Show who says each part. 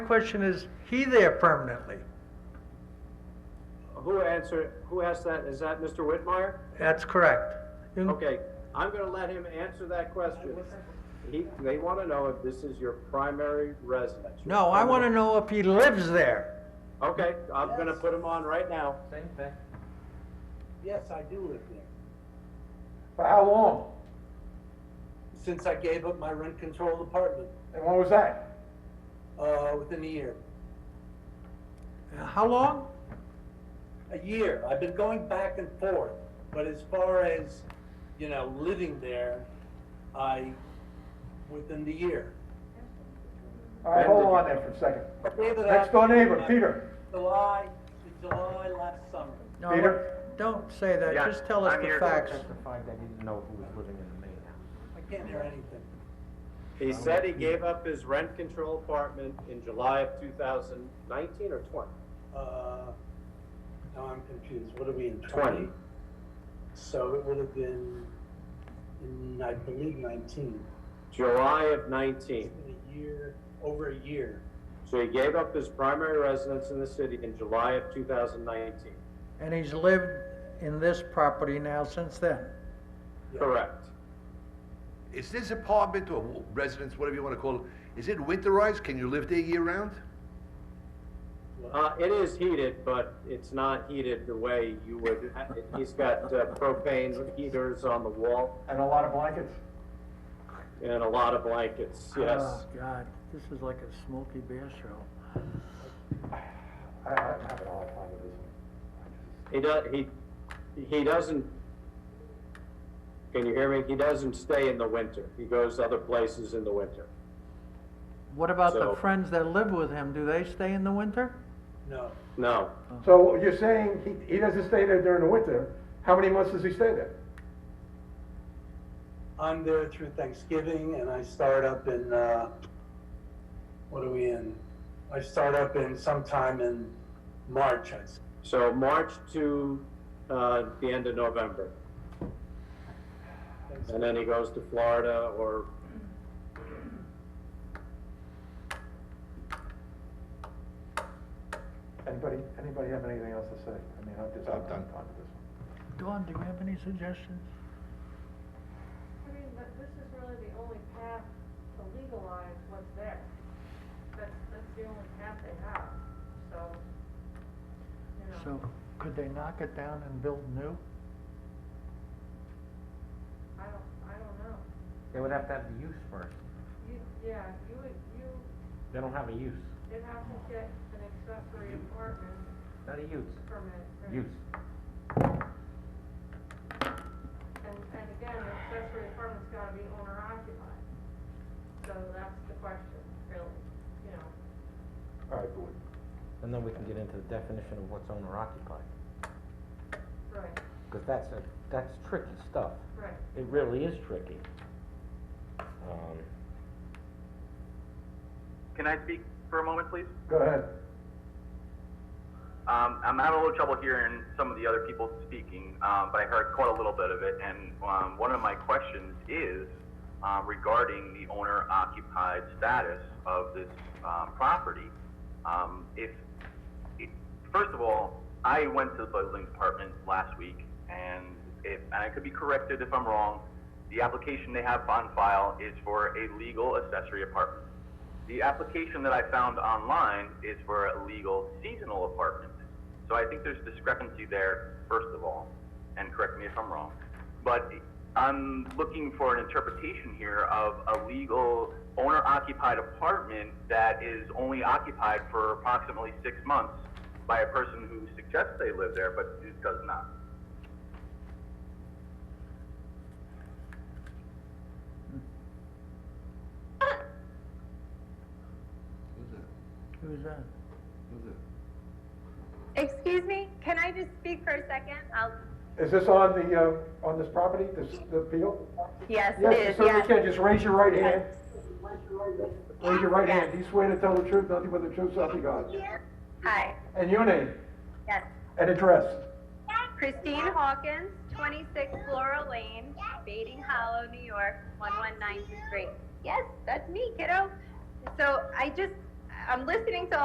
Speaker 1: question, is he there permanently?
Speaker 2: Who answered, who asked that? Is that Mr. Whitmire?
Speaker 1: That's correct. You-
Speaker 2: Okay, I'm gonna let him answer that question. He, they wanna know if this is your primary residence. your
Speaker 1: No, I wanna
Speaker 2: primary-
Speaker 1: know if he lives there.
Speaker 2: Okay, I'm gonna put him on right now.
Speaker 3: Same thing.
Speaker 4: Yes, I do live there,
Speaker 5: For how long?
Speaker 4: since I gave up my rent-controlled apartment,
Speaker 5: And when was that?
Speaker 4: uh, within a year.
Speaker 1: How long?
Speaker 4: A year, I've been going back and forth, but as far as, you know, living there, I, within the year.
Speaker 5: All right, hold on there for a second.
Speaker 4: David, I-
Speaker 5: Next door neighbor, Peter.
Speaker 4: July, in July last summer.
Speaker 1: No,
Speaker 5: Peter?
Speaker 1: Don't say that,
Speaker 3: Yeah,
Speaker 1: just tell us
Speaker 3: I'm
Speaker 1: the
Speaker 3: here to
Speaker 1: facts.
Speaker 3: testify that he didn't know who was living in the main house.
Speaker 4: I can't hear anything.
Speaker 2: He said he gave up his rent control apartment in July of two thousand nineteen or twenty?
Speaker 4: Uh, now I'm confused, what are we in,
Speaker 2: Twenty.
Speaker 4: twenty? So it would have been, in, I believe nineteen,
Speaker 2: July of nineteen.
Speaker 4: It's been a year, over a year.
Speaker 2: So he gave up his primary residence in the city in July of two thousand nineteen.
Speaker 1: And he's lived in this property now since then.
Speaker 2: Correct.
Speaker 6: Is this apartment or residence, whatever you want to call it, is it winterized? Can you live there year round?
Speaker 2: Uh, it is heated, but it's not heated the way you would, he's got uh, propane heaters on the wall
Speaker 5: And a lot of blankets.
Speaker 2: and a lot of blankets, yes.
Speaker 1: Oh, God, this is like a Smoky Bear show.
Speaker 5: I, I I'm having a hard time with this one.
Speaker 2: He does, he, he doesn't, can you hear me? He doesn't stay in the winter. He goes other places in the winter.
Speaker 1: What about the
Speaker 2: So-
Speaker 1: friends that live with him? Do they stay in the winter?
Speaker 4: No,
Speaker 2: No,
Speaker 5: So you're saying he, he doesn't stay there during the winter? How many months does he stay there?
Speaker 4: I'm there through Thanksgiving and I start up in, uh, what are we in? I start up in sometime in March, I, s-
Speaker 2: so March to, uh, the end of November. And then he goes to Florida or,
Speaker 5: Anybody, anybody have anything else to say? I mean, I'm just, I'm done talking to this
Speaker 1: Dawn,
Speaker 5: one.
Speaker 1: do you have any suggestions?
Speaker 7: I mean, but this is really the only path to legalize what's there. That's, that's the only path they have, so, you know.
Speaker 1: So, could they knock it down and build new?
Speaker 7: I don't, I don't know.
Speaker 3: They would have to have the use first.
Speaker 7: You, yeah, you would, you,
Speaker 3: They don't have a use.
Speaker 7: they'd have to get an accessory apartment
Speaker 3: Not a use.
Speaker 7: permit. right?
Speaker 3: Use.
Speaker 7: And, and again, an accessory apartment's gotta be owner occupied. So that's the question, really, you know.
Speaker 5: All right, board.
Speaker 3: And then we can get into the definition of what's owner occupied.
Speaker 7: Right,
Speaker 3: Because that's a, that's tricky stuff.
Speaker 7: right.
Speaker 3: It really is tricky. Um,
Speaker 8: Can I speak for a moment, please?
Speaker 5: Go ahead.
Speaker 8: Um, I'm having a little trouble hearing some of the other people speaking, um, but I heard quite a little bit of it. And um, one of my questions is um, regarding the owner-occupied status of this um, property. Um, if, it, first of all, I went to the building department last week, and if and I could be corrected if I'm wrong, the application they have on file is for a legal accessory apartment. The application that I found online is for a legal seasonal apartment. So I think there's discrepancy there, first of all, and correct me if I'm wrong. But I'm looking for an interpretation here of a legal owner occupied apartment that is only occupied for approximately six months by a person who suggests they live there but who does not.
Speaker 6: Who's that?
Speaker 1: Who's that?
Speaker 6: Who's that?
Speaker 9: Excuse me, can I just speak for a second? I'll,
Speaker 5: Is this on the, uh, on this property, this, the appeal?
Speaker 9: yes, it
Speaker 5: Yes,
Speaker 9: is,
Speaker 5: sir, you
Speaker 9: yes.
Speaker 5: can, just raise your right hand. Raise your right hand.
Speaker 9: Yes.
Speaker 5: Do you swear to tell the truth, nothing but the truth, so help you God?
Speaker 9: Hi,
Speaker 5: And your name
Speaker 9: yes.
Speaker 5: and address?
Speaker 9: Christine Hawkins, 26 Laurel Lane, Bating Hollow, New York, 11923. Yes, that's me, kiddo. So I just, I'm listening to